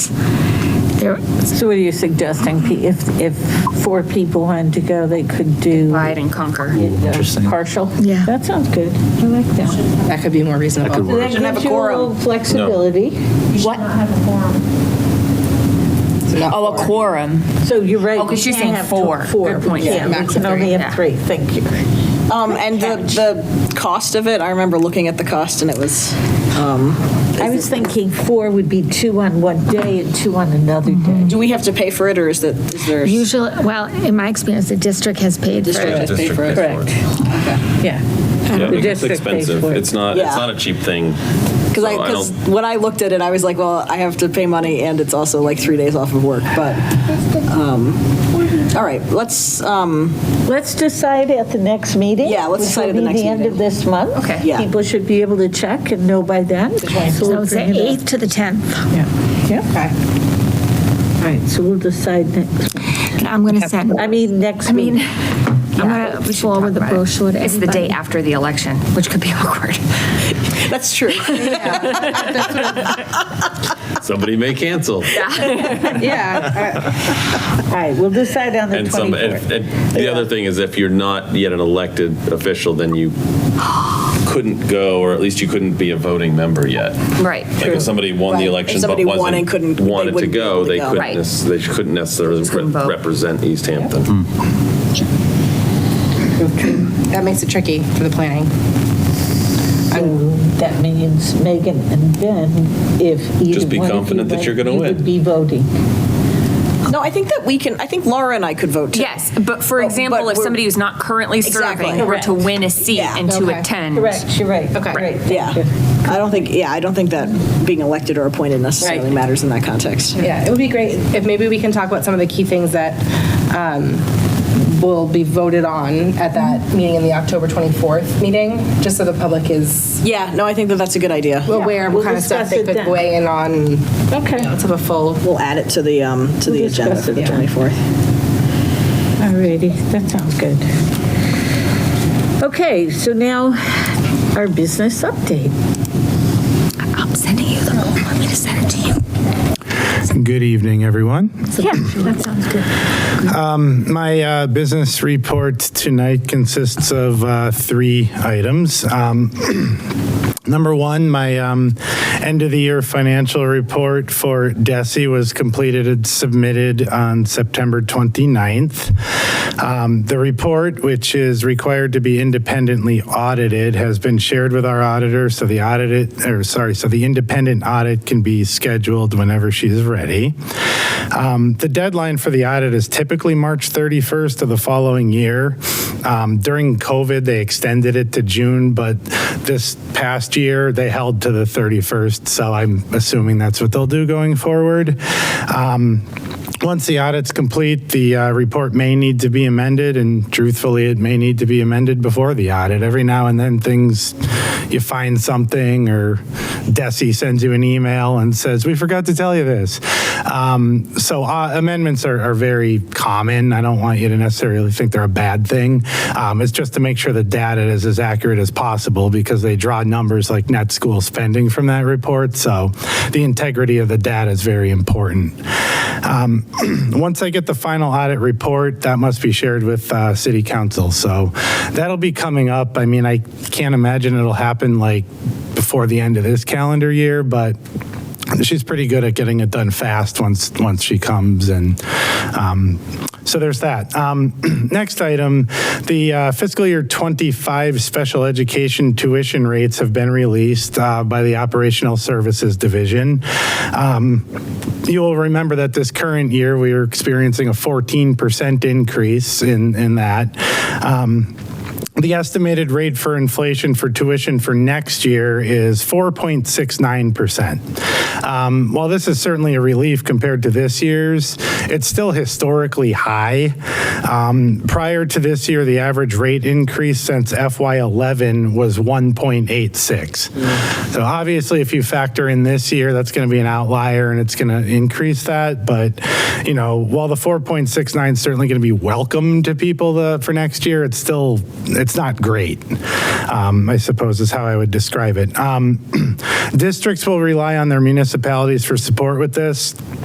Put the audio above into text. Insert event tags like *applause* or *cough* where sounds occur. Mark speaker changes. Speaker 1: There-
Speaker 2: So what are you suggesting? P- If, if four people wanted to go, they could do
Speaker 3: divide and conquer.
Speaker 2: uh, partial?
Speaker 1: Yeah.
Speaker 2: That sounds good. I like that.
Speaker 3: That could be more reasonable.
Speaker 4: could work.
Speaker 2: That
Speaker 3: Shouldn't have a
Speaker 2: gives you a
Speaker 3: quorum.
Speaker 2: little flexibility.
Speaker 3: What? Oh, a quorum.
Speaker 2: So you're right.
Speaker 3: Oh, 'cause
Speaker 2: you
Speaker 3: you're saying
Speaker 2: can't have
Speaker 3: four.
Speaker 2: Four.
Speaker 3: Good point. Yeah,
Speaker 2: Yeah, we
Speaker 3: max
Speaker 2: can
Speaker 3: of three,
Speaker 2: only
Speaker 3: yeah.
Speaker 2: have three. Thank you.
Speaker 5: Um, and the, the cost of it, I remember looking at the cost and it was, um,
Speaker 2: I was thinking four would be two on one day and two on another day.
Speaker 5: do we have to pay for it or is that, is there?
Speaker 1: Usually, well, in my experience, the district has paid for
Speaker 5: District
Speaker 1: it.
Speaker 5: has paid for it.
Speaker 2: Correct. Yeah.
Speaker 4: Yeah,
Speaker 2: The
Speaker 4: it's
Speaker 2: district pays
Speaker 4: expensive.
Speaker 2: for it.
Speaker 4: It's not,
Speaker 5: Yeah.
Speaker 4: it's not a cheap thing.
Speaker 5: Cause I,
Speaker 4: So I
Speaker 5: cause
Speaker 4: don't-
Speaker 5: when I looked at it, I was like, well, I have to pay money and it's also like three days off of work, but, um, all right, let's, um,
Speaker 2: Let's decide at the next meeting.
Speaker 5: Yeah, let's
Speaker 2: which
Speaker 5: decide
Speaker 2: will
Speaker 5: at the
Speaker 2: be
Speaker 5: next
Speaker 2: end
Speaker 5: meeting.
Speaker 2: of this month.
Speaker 3: Okay.
Speaker 5: Yeah.
Speaker 2: People should be able to check and know by then. So
Speaker 1: So
Speaker 2: we'll
Speaker 1: it's the
Speaker 2: bring it up.
Speaker 1: 8th to the 10th.
Speaker 2: All right, so we'll decide next,
Speaker 1: I'm going to send,
Speaker 2: I mean, next meeting. *laughs*
Speaker 1: I'm going to forward uh, the brochure to
Speaker 3: It's the day
Speaker 1: everybody.
Speaker 3: after the election, which could be *laughs* awkward. *laughs*
Speaker 5: that's true.
Speaker 4: Somebody may cancel.
Speaker 2: All right, we'll decide on the
Speaker 4: And some, and-
Speaker 2: 24th.
Speaker 4: and the other thing is if you're not yet an elected official, then you couldn't go, or at least you couldn't be a voting member yet.
Speaker 3: Right.
Speaker 4: Like if somebody won
Speaker 5: Right.
Speaker 4: the
Speaker 5: If
Speaker 4: election but
Speaker 5: somebody won and couldn't-
Speaker 4: wasn't,
Speaker 5: they
Speaker 4: wanted to
Speaker 5: wouldn't be able
Speaker 4: go,
Speaker 5: to
Speaker 4: they
Speaker 5: go.
Speaker 4: couldn't,
Speaker 3: Right.
Speaker 4: nec- they couldn't necessarily
Speaker 3: couldn't
Speaker 4: re-
Speaker 3: vote.
Speaker 4: represent East Hampton.
Speaker 6: That makes it tricky for the planning.
Speaker 2: So that means Megan and Ben, if
Speaker 4: Just
Speaker 2: either
Speaker 4: be
Speaker 2: one of you
Speaker 4: confident that
Speaker 2: went,
Speaker 4: you're gonna
Speaker 2: you would
Speaker 4: win.
Speaker 2: be voting.
Speaker 5: No, I think that we can, I think Laura and I could vote too.
Speaker 3: Yes, Oh, but for
Speaker 5: But-
Speaker 3: example,
Speaker 5: but
Speaker 3: if
Speaker 5: we're-
Speaker 3: somebody who's not currently
Speaker 5: Exactly.
Speaker 3: serving were to
Speaker 2: Correct.
Speaker 3: win a seat
Speaker 5: Yeah.
Speaker 3: and to
Speaker 6: Okay.
Speaker 3: attend.
Speaker 2: Correct, you're right.
Speaker 6: Okay.
Speaker 2: Right, thank
Speaker 5: Yeah.
Speaker 2: you.
Speaker 5: I don't think, yeah, I don't think that being elected or appointed necessarily
Speaker 6: Right.
Speaker 5: matters in that context.
Speaker 6: Yeah, it would be great if maybe we can talk about some of the key things that um, will be voted on at that meeting in the October 24th meeting, just so the public is
Speaker 5: Yeah, no, I think that that's a good idea.
Speaker 6: aware of
Speaker 2: we'll
Speaker 6: what kind of stuff
Speaker 2: discuss
Speaker 6: they
Speaker 2: it
Speaker 6: could
Speaker 2: then.
Speaker 6: weigh in on, you know,
Speaker 2: Okay,
Speaker 6: to the full.
Speaker 5: We'll add it to the, um, to the
Speaker 2: We'll
Speaker 5: agenda
Speaker 2: discuss
Speaker 5: for
Speaker 2: it,
Speaker 5: the
Speaker 2: yeah.
Speaker 5: 24th.
Speaker 2: all righty, that sounds good. Okay, so now our business update.
Speaker 3: I'm sending you the whole, want me to send it to you?
Speaker 7: Good evening, everyone.
Speaker 1: Yeah, that sounds good.
Speaker 7: My uh, business report tonight consists of uh, three items. Um, *clears throat* Number one, my um, end of the year financial report for DESI was completed and submitted on September 29th. Um, the report, which is required to be independently audited, has been shared with our auditor, so the audit, or sorry, so the independent audit can be scheduled whenever she is ready. Um, the deadline for the audit is typically March 31st of the following year. Um, during COVID, they extended it to June, but this past year they held to the 31st. So I'm assuming that's what they'll do going forward. Um, once the audit's complete, the uh, report may need to be amended, and truthfully, it may need to be amended before the audit. Every now and then, things you find something, or Desi sends you an email and says, "We forgot to tell you this." Um, so uh, amendments are, are very common. I don't want you to necessarily think they're a bad thing. Um, it's just to make sure the data is as accurate as possible because they draw numbers like net school spending from that report. So the integrity of the data is very important. Um, *clears throat* once I get the final audit report, that must be shared with uh, City Council. So that'll be coming up. I mean, I can't imagine it'll happen like before the end of this calendar year, but she's pretty good at getting it done fast once once she comes and um, so there's that. Um, *clears throat* next item, the uh, fiscal year 25 special education tuition rates have been released uh, by the Operational Services Division. Um, you will remember that this current year we are experiencing a 14% increase in in that. Um, the estimated rate for inflation for tuition for next year is 4.69%. Um, while this is certainly a relief compared to this year's, it's still historically high. Um, prior to this year, the average rate increase since FY11 was 1.86. So obviously, if you factor in this year, that's going to be an outlier and it's going to increase that. But, you know, while the 4.69 is certainly going to be welcome to people the, for next year, it's still, it's not great, um, I suppose is how I would *clears throat* describe it. Um, districts will rely on their municipalities for support with this.